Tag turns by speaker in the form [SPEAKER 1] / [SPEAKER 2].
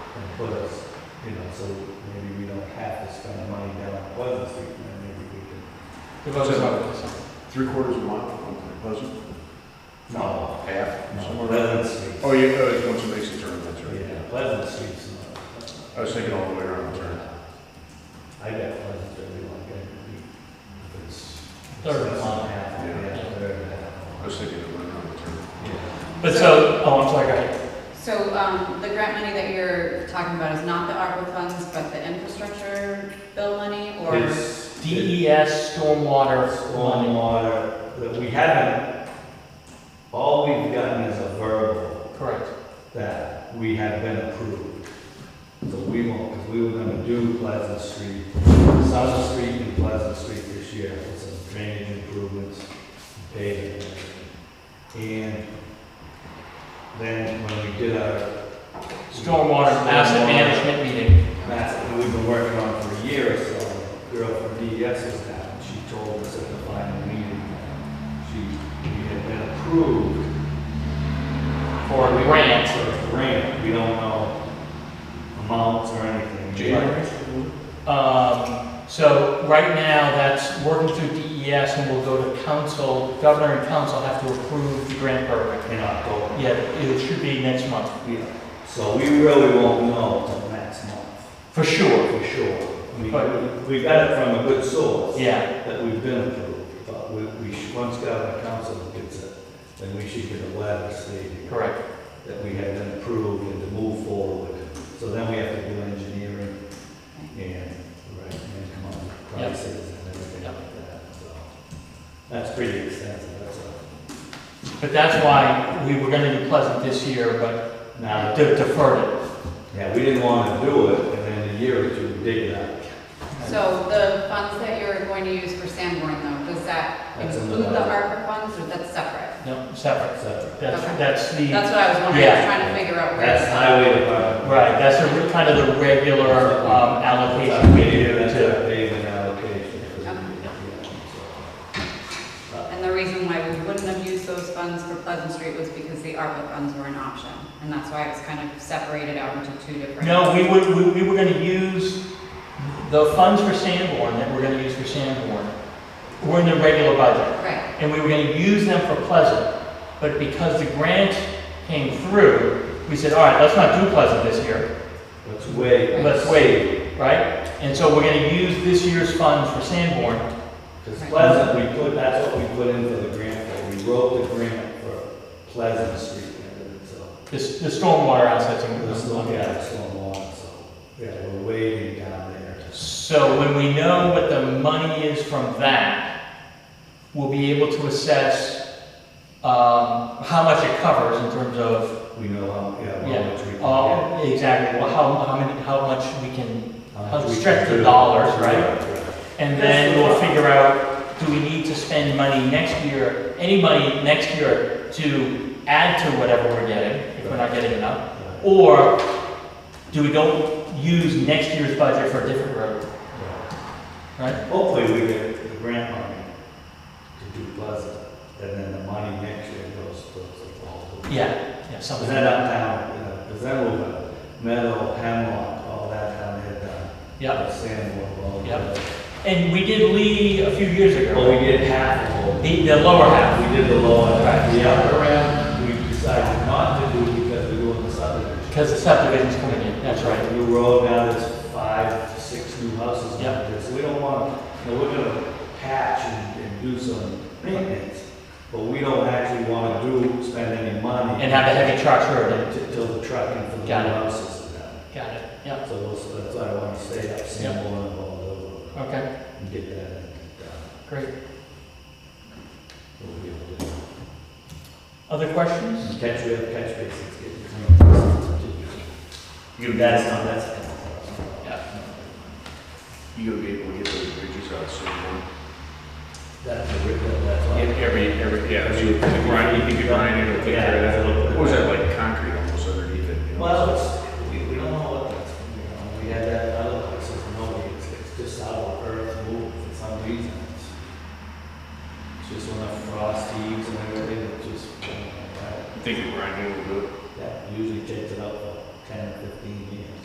[SPEAKER 1] put us, you know, so maybe we don't have to spend the money down on Pleasant Street, and then maybe we can.
[SPEAKER 2] It was about this.
[SPEAKER 3] Three quarters of a mile from Pleasant?
[SPEAKER 1] No,
[SPEAKER 3] Half,
[SPEAKER 1] no,
[SPEAKER 3] somewhere around.
[SPEAKER 1] Pleasant Street.
[SPEAKER 3] Oh, yeah, oh, it's once it makes a turn, that's right.
[SPEAKER 1] Yeah, Pleasant Street's not.
[SPEAKER 3] I was thinking all the way around the turn.
[SPEAKER 1] I got Pleasant Street, we want to get, we, it's.
[SPEAKER 2] Third
[SPEAKER 1] it's
[SPEAKER 2] mile.
[SPEAKER 1] half, Yeah,
[SPEAKER 2] Yeah.
[SPEAKER 1] third
[SPEAKER 3] I
[SPEAKER 1] half.
[SPEAKER 3] was thinking it went around the turn.
[SPEAKER 1] Yeah.
[SPEAKER 2] But so, oh, I'm sorry, go ahead.
[SPEAKER 4] So um, the grant money that you're talking about is not the ARPA funds, but the infrastructure bill money, or?
[SPEAKER 1] It's-
[SPEAKER 2] DES E stormwater money.
[SPEAKER 1] Stormwater, that we haven't, all we've gotten is a verbal
[SPEAKER 2] Correct.
[SPEAKER 1] that we have been approved. So we won't, because we were gonna do Pleasant Street, South Street and Pleasant Street this year, with some drainage improvements, paving. And then when we did our
[SPEAKER 2] Stormwater asset
[SPEAKER 1] Stormwater.
[SPEAKER 2] management meeting.
[SPEAKER 1] master that we've been working on for a year or so, a girl from E DES was down, and she told us at the final meeting that she, we had been approved
[SPEAKER 2] For a grant.
[SPEAKER 1] for a grant, we don't know amounts or anything.
[SPEAKER 2] Um, so right now, that's working through DES and we'll go to council, governor and council have to approve the grant program.
[SPEAKER 1] In October.
[SPEAKER 2] Yeah, it should be next month,
[SPEAKER 1] Yeah. So we really won't know until next month,
[SPEAKER 2] for sure.
[SPEAKER 1] for sure. I mean,
[SPEAKER 2] But-
[SPEAKER 1] we got it from a good source.
[SPEAKER 2] Yeah,
[SPEAKER 1] That we've been approved, but we, we, should- once government council gets it, then we should get a letter stating
[SPEAKER 2] correct.
[SPEAKER 1] that we have been approved and to move forward. So then we have to do engineering and, right, and come up with
[SPEAKER 2] Yep.
[SPEAKER 1] prices and everything
[SPEAKER 2] Yep.
[SPEAKER 1] like that, so. That's pretty extensive, that's a,
[SPEAKER 2] But that's why we were gonna do Pleasant this year, but
[SPEAKER 1] now,
[SPEAKER 2] de- deferred
[SPEAKER 1] yeah, we didn't want to do it, and then a year or two, we dig it up.
[SPEAKER 4] So the funds that you're going to use for Sanborn though, does that
[SPEAKER 1] That's in the
[SPEAKER 4] include the
[SPEAKER 1] budget.
[SPEAKER 4] ARPA funds, or that's separate?
[SPEAKER 2] it. No, separate.
[SPEAKER 1] So,
[SPEAKER 2] That's,
[SPEAKER 4] Okay.
[SPEAKER 2] that's the,
[SPEAKER 4] That's what I was wondering, I was
[SPEAKER 2] Yeah.
[SPEAKER 4] trying to figure out where.
[SPEAKER 1] That's highway department.
[SPEAKER 2] right, that's the, kind of the regular um, allocation
[SPEAKER 1] That's
[SPEAKER 2] we
[SPEAKER 1] what
[SPEAKER 2] do
[SPEAKER 1] That's
[SPEAKER 2] to.
[SPEAKER 1] our payment allocation. for the-
[SPEAKER 4] Okay.
[SPEAKER 1] yeah, so. Uh,
[SPEAKER 4] And the reason why we wouldn't have used those funds for Pleasant Street was because the ARPA funds were an option. And that's why it was kind of separated out into two different.
[SPEAKER 2] No, we would, we, we were gonna use the funds for Sanborn that we're gonna use for Sanborn. We're in the regular budget,
[SPEAKER 4] Right,
[SPEAKER 2] and we were gonna use them for Pleasant, but because the grant came through, we said, all right, let's not do Pleasant this year,
[SPEAKER 1] Let's wait.
[SPEAKER 2] let's wait, right? And so we're gonna use this year's funds for Sanborn,
[SPEAKER 1] Because Pleasant, we put, that's what we put into the grant, for. we wrote the grant for Pleasant Street, and so,
[SPEAKER 2] this, the stormwater assets. and-
[SPEAKER 1] let's look at it so long, so, yeah, we're waiting down there.
[SPEAKER 2] So when we know what the money is from that, we'll be able to assess um, how much it covers in terms of,
[SPEAKER 1] We know how, yeah,
[SPEAKER 2] Yeah.
[SPEAKER 1] how much we can
[SPEAKER 2] uh, exactly, well, how, how many, how much we can,
[SPEAKER 1] get.
[SPEAKER 2] how
[SPEAKER 1] much we can
[SPEAKER 2] stretch the
[SPEAKER 1] do.
[SPEAKER 2] dollars, right?
[SPEAKER 1] right.
[SPEAKER 2] And then we'll figure out, do we need to spend money next year, any money next year to add to whatever we're getting, if we're not getting enough?
[SPEAKER 1] Right.
[SPEAKER 2] Or do we don't use next year's budget for a different road,
[SPEAKER 1] Right.
[SPEAKER 2] right?
[SPEAKER 1] Hopefully, we get the grant money to do Pleasant, and then the money next year goes towards the whole.
[SPEAKER 2] Yeah, yeah,
[SPEAKER 1] Is
[SPEAKER 2] something.
[SPEAKER 1] that uptown, you know, is that over, metal, hemlock, all that down there, down.
[SPEAKER 2] Yeah,
[SPEAKER 1] Sandwood, all
[SPEAKER 2] Yep.
[SPEAKER 1] that.
[SPEAKER 2] and we did Lee a few years
[SPEAKER 1] Well,
[SPEAKER 2] ago.
[SPEAKER 1] we did half of them.
[SPEAKER 2] The, the lower half.
[SPEAKER 1] We did the lower half.
[SPEAKER 2] Right.
[SPEAKER 1] The upper end, we decided not to do because we were in the subdivision.
[SPEAKER 2] Because the subdivision's coming in, that's right.
[SPEAKER 1] New road, now there's five, six new houses out
[SPEAKER 2] Yep.
[SPEAKER 1] there. So we don't want, you know, we're gonna patch and, and do some maintenance, but we don't actually wanna do, spend any money.
[SPEAKER 2] And have a heavy trucks road in.
[SPEAKER 1] Till the trucking for the new
[SPEAKER 2] Got it.
[SPEAKER 1] houses and that.
[SPEAKER 2] Got it, yeah,
[SPEAKER 1] So we'll- so that's why I wanna stay up Sanborn and all over
[SPEAKER 2] okay,
[SPEAKER 1] and get that done.
[SPEAKER 2] great.
[SPEAKER 1] We'll be able to do.
[SPEAKER 2] Other questions?
[SPEAKER 1] Catch, we have catch basins getting cleaned. You, that's not, that's.
[SPEAKER 2] Yeah.
[SPEAKER 3] You gonna be able to get those bridges out soon? huh?
[SPEAKER 1] That's a rip, that's all.
[SPEAKER 3] Every, every, yeah, if you grind, if you grind it, it'll take care of that. What was that, like concrete almost underneath it? you know?
[SPEAKER 1] Well,